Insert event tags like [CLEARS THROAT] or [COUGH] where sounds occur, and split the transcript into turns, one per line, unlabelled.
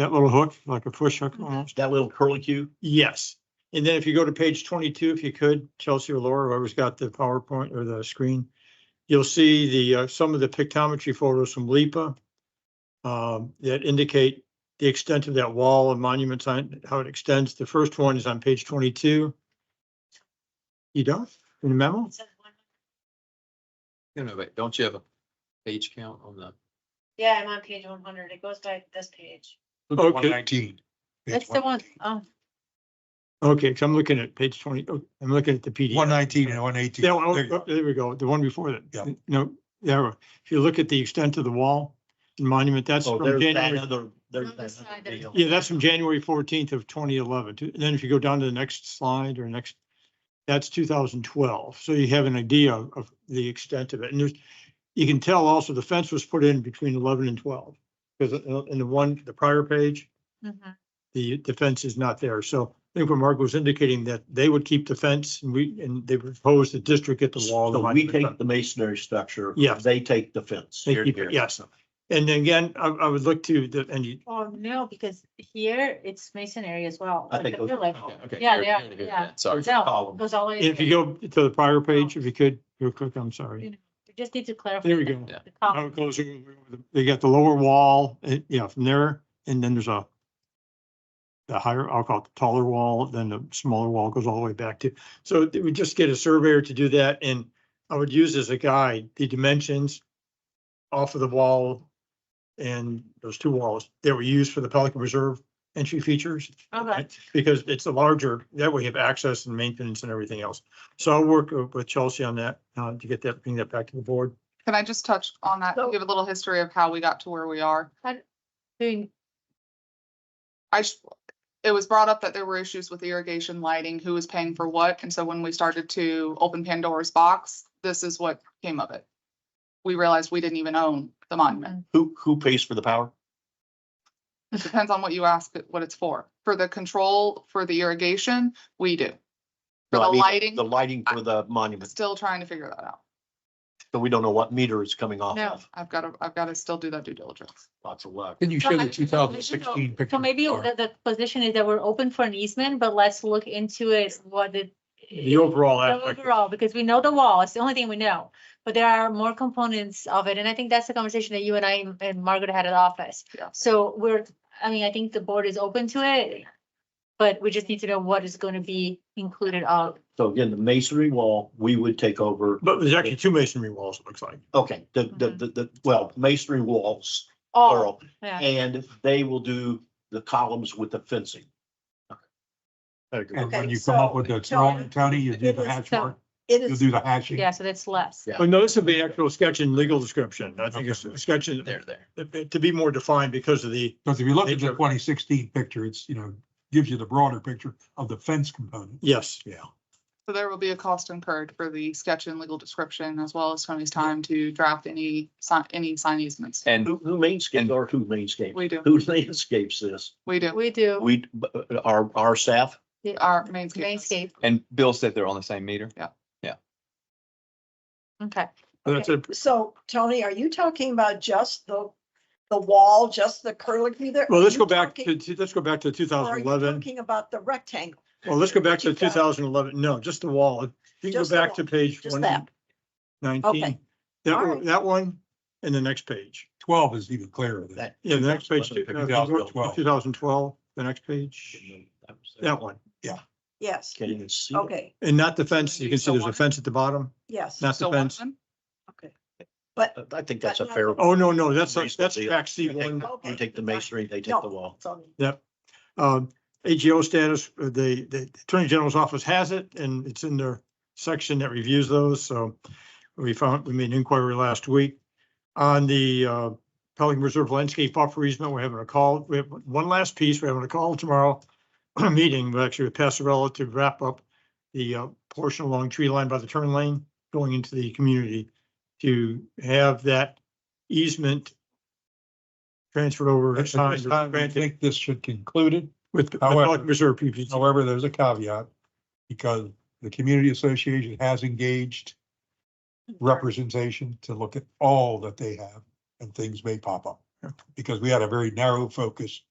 That little hook, like a push hook almost.
that little curlicue.
Yes. And then if you go to page twenty-two, if you could, Chelsea or Laura, whoever's got the PowerPoint or the screen, you'll see the, uh, some of the pictometry photos from LIPA um, that indicate the extent of that wall and monument sign, how it extends. The first one is on page twenty-two. You don't, in the memo?
No, no, wait, don't you have a page count on the?
Yeah, I'm on page one hundred. It goes by this page.
Okay.
nineteen.
That's the one. Oh,
Okay, so I'm looking at page twenty, oh, I'm looking at the PDF.
One nineteen and one eighteen.
Yeah, well, oh, there we go, the one before that.
Yeah.
No, there, if you look at the extent of the wall and monument, that's
So
from
Oh, there's that
January.
other, there's
On the
that
side
other
of-
deal.
Yeah, that's from January fourteenth of twenty eleven. Then if you go down to the next slide or next, that's two thousand twelve. So you have an idea of of the extent of it. And there's, you can tell also the fence was put in between eleven and twelve. Because uh, in the one, the prior page,
mhm.
the defense is not there. So I think what Mark was indicating that they would keep the fence and we, and they proposed the district at the wall.
So we take the masonry structure.
Yes.
They take the fence.
They keep it, yes. And then again, I, I would look to the, and you,
Oh, no, because here it's masonry as well.
I
like
think
the
it was-
pillar.
Okay, okay.
Yeah, yeah,
Here, here,
yeah.
here. Sorry.
No,
column.
Goes all the way. to
if you
the-
go to the prior page, if you could, real quick, I'm sorry.
We Just need to clarify.
There we
the-
go.
Yeah.
the column.
How it goes, they got the lower wall, eh, yeah, from there, and then there's a the higher, I'll call it the taller wall, then the smaller wall goes all the way back to, so we would just get a surveyor to do that, and I would use as a guide, the dimensions off of the wall and those two walls that were used for the Pelican Reserve entry features.
Okay.
Because it's a larger, that way you have access and maintenance and everything else. So I'll work with Chelsea on that, uh, to get that, bring that back to the board.
Can I just touch on that?
So-
Give a little history of how we got to where we are.
Doing,
I, sh- it was brought up that there were issues with irrigation lighting, who was paying for what. And so when we started to open Pandora's box, this is what came of it. We realized we didn't even own the monument.
Who, who pays for the power?
Mm.
It depends on what you ask, it what it's for. For the control, for the irrigation, we do. For
No, I
the
mean,
lighting,
The lighting for the monument.
still trying to figure that out.
So we don't know what meter is coming off
No.
of.
I've got to, I've got to still do that due diligence.
Lots of luck.
Can you
share the 2016 so maybe the, the position is that we're open for an easement, but let's look into it, what it.
The overall
the
aspect.
Overall, because we know the wall, it's the only thing we know, but there are more components of it, and I think that's the conversation that you and I and Margaret had at office.
Yeah.
So we're, I mean, I think the board is open to it, but we just need to know what is gonna be included of.
So again, the masonry wall, we would take over.
But there's actually two masonry walls, it looks like.
Okay, the, the,
Mm-hmm.
Mhm.
the, the, well, masonry walls,
Oh,
all.
plural,
yeah.
and they will do the columns with the fencing. There you go.
And when
Okay,
you come up
so-
with the
so-
drawing, Tony, you do
It
the
is
hatch
so-
mark,
It
you'll
is,
do the hatching.
Yeah, so that's less.
Yeah.
Oh, no, this would be actual sketch and legal description. I think it's a sketch and- uh,
There, there.
to be more defined because of the,
Because if you look at the
Nature.
twenty sixteen picture, it's, you know, gives you the broader picture of the fence component.
yes.
Yeah.
So there will be a cost incurred for the sketch and legal description as well as Tony's time to draft any sign, any sign easements.
And
Who, who mainscapes or who mainscapes?
We do,
Who [LAUGHS] landscapes this?
we do.
We do.
We, uh, our, our staff?
Our mainscape.
Landscape,
and Bill said they're on the same meter.
okay.
That's a,
so Tony, are you talking about just the, the wall, just the curlicue there?
well,
Are
let's
you
go back
talking-
to, to- let's go back to two
or Are
thousand
you
eleven.
talking about the rectangle,
Well, let's go back to two thousand eleven. No, just the wall. You can go
Just the
back to
wall.
page
just
one
that?
nineteen.
Okay.
That,
All
one-
right.
that one and the next page.
Twelve is even clearer than
That-
that.
Yeah, the next page, two
2012.
thousand twelve, the next page, that one.
Yes,
Can't even see. it.
okay,
And not the fence. You can see there's a fence at the bottom,
yes,
not the
Still one
fence.
of them.
okay.
I think that's a fair.
Oh, no, no, that's, that's
Basically,
back C
You
Oh,
one.
take- you take the masonry, they take the wall.
Yep. Um, AGO status, uh, the, the Attorney General's office has it and it's in their section that reviews those. So we found, we made an inquiry last week on the, uh, Pelican Reserve landscape buffer easement. We're having a call. We have one last piece. We're having a call tomorrow. [CLEARS THROAT] Meeting, but actually with Passarella to wrap up the, uh, portion along tree line by the turn lane going into the community to have that easement transferred over.
At this
signed or
time, I
granted.
think this should conclude it.
With the
However-
Pelican Reserve PPP.
However, there's a caveat because the community association has engaged representation to look at all that they have and things may pop up. Because we had a very narrow focus